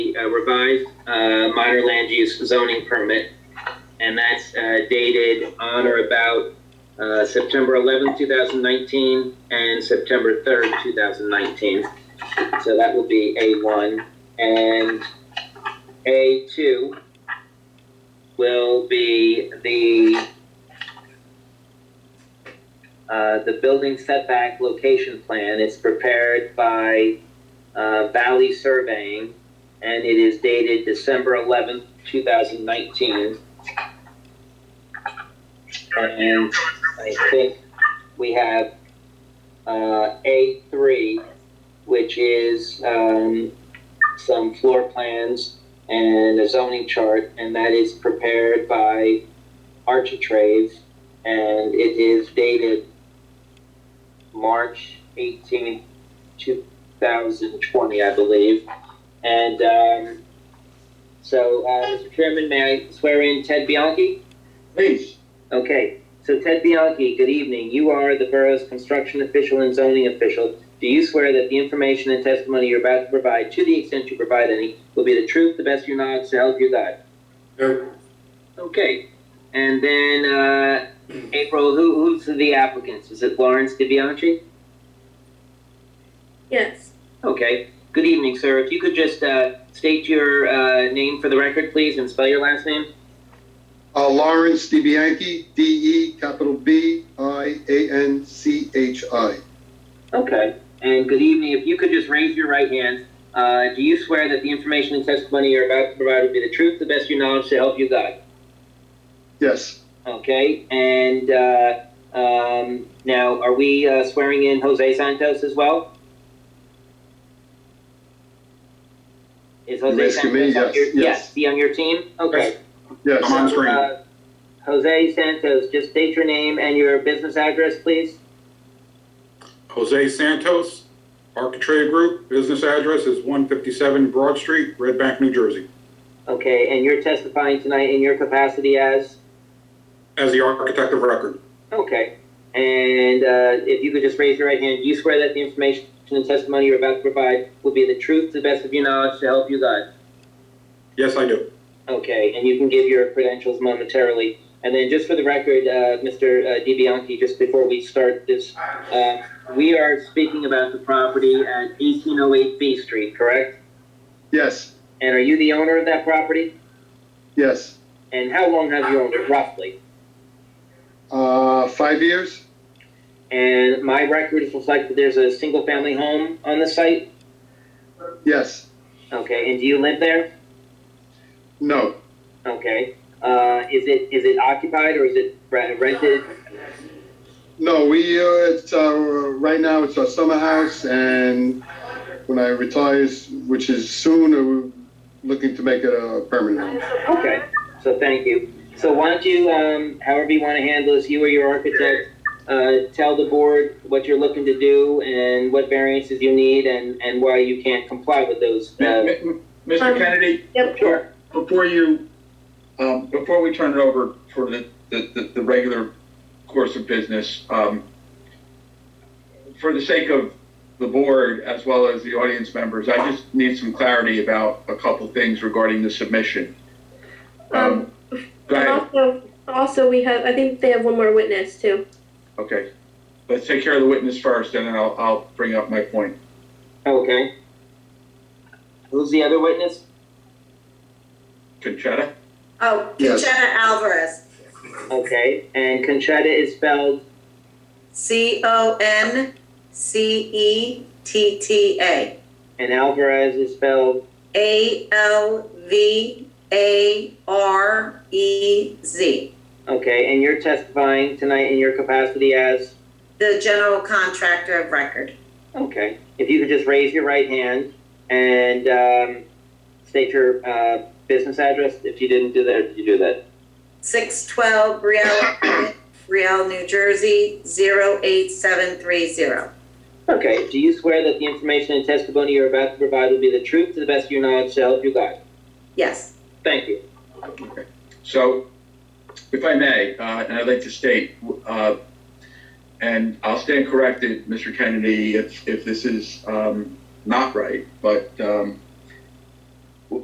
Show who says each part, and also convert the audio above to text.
Speaker 1: uh, revised uh, minor land use zoning permit, and that's uh, dated on or about uh, September 11th, 2019, and September 3rd, 2019. So that will be A1. And A2 will be the, uh, the building setback location plan. It's prepared by uh, Valley Surveying, and it is dated December eleventh, two thousand nineteen. And I think we have, uh, A three, which is, um, some floor plans and a zoning chart, and that is prepared by Architrave, and it is dated March eighteenth, two thousand twenty, I believe. And um, so, uh, Mr. Chairman, may I swear in Ted Bianchi?
Speaker 2: Please,
Speaker 1: Okay, so Ted Bianchi, good evening. You are the borough's construction official and zoning official. Do you swear that the information and testimony you're about to provide, to the extent you provide any, will be the truth, the best of your knowledge, to help you God?
Speaker 3: Uh,
Speaker 2: no,
Speaker 1: Okay, and then, uh, April, who, who's the applicants? Is it Lawrence DiBianchi?
Speaker 4: Yes,
Speaker 1: Okay. Good evening, sir. If you could just uh, state your uh, name for the record, please, and spell your last name.
Speaker 5: Uh, Lawrence DeBianchi, D-E, capital B-I-A-N-C-H-I.
Speaker 1: Okay. And good evening. If you could just raise your right hand. Uh, do you swear that the information and testimony you're about to provide will be the truth, the best of your knowledge, to help you God?
Speaker 5: Yes,
Speaker 1: Okay. And uh, um, now, are we uh, swearing in Jose Santos as well? Is Jose
Speaker 5: You're asking
Speaker 1: Santos
Speaker 5: me?
Speaker 1: on
Speaker 5: Yes,
Speaker 1: your,
Speaker 5: yes.
Speaker 1: is he on your team? Okay.
Speaker 5: yes.
Speaker 2: on screen.
Speaker 1: Uh, Jose Santos, just state your name and your business address, please.
Speaker 2: Jose Santos, Architrave Group, business address is 157 Broad Street, Red Bank, New Jersey,
Speaker 1: Okay, and you're testifying tonight in your capacity as?
Speaker 2: as the architect of record.
Speaker 1: Okay. And uh, if you could just raise your right hand, do you swear that the information and testimony you're about to provide will be the truth, to the best of your knowledge, to help you God?
Speaker 2: Yes, I do.
Speaker 1: Okay, and you can give your credentials momentarily. And then just for the record, uh, Mr. uh, DiBianchi, just before we start this, uh, we are speaking about the property at 1808 B Street, correct?
Speaker 5: Yes,
Speaker 1: And are you the owner of that property?
Speaker 5: yes.
Speaker 1: And how long have you owned it roughly?
Speaker 5: Uh, five years?
Speaker 1: And my records reflect that there's a single family home on the site.
Speaker 5: Yes,
Speaker 1: Okay, and do you live there?
Speaker 5: no,
Speaker 1: Okay. Uh, is it is it occupied or is it re- rented?
Speaker 5: no, we, uh, it's our, right now, it's our summer house, and when I retire, which is soon, uh, we're looking to make it a permanent. home.
Speaker 1: Okay. So thank you. So why don't you, um, however you want to handle this, you or your architect, uh, tell the board what you're looking to do and what variances you need and, and why you can't comply with those.
Speaker 3: M-
Speaker 1: Uh,
Speaker 3: m- Mr. Kennedy,
Speaker 4: yep,
Speaker 1: sure.
Speaker 3: before you, um, before we turn it over for the, the, the- the regular course of business, um, for the sake of the board as well as the audience members, I just need some clarity about a couple things regarding the submission. Um, Go
Speaker 4: And
Speaker 3: ahead,
Speaker 4: also, also we have, I think they have one more witness too.
Speaker 3: okay. Let's take care of the witness first and then I'll, I'll bring up my point.
Speaker 1: Okay. Who's the other witness?
Speaker 3: Conchetta?
Speaker 6: Oh,
Speaker 5: Yes.
Speaker 6: Conchetta Alvarez,
Speaker 1: Okay. And Conchetta is spelled
Speaker 6: C O N C E T T A,
Speaker 1: And Alvarez is spelled,
Speaker 6: A L V A R E Z,
Speaker 1: okay, and you're testifying tonight in your capacity as,
Speaker 6: the general contractor of record.
Speaker 1: okay. If you could just raise your right hand and um, state your uh, business address, if you didn't do that, or did you do that?
Speaker 6: 612 Brielle, Brielle, New Jersey, 08730.
Speaker 1: Okay, do you swear that the information and testimony you're about to provide will be the truth to the best of your knowledge, so help you God?
Speaker 6: Yes,
Speaker 1: Thank you.
Speaker 3: So, if I may, uh, and I'd like to state, uh, and I'll stand corrected, Mr. Kennedy, if, if this is um, not right, but um,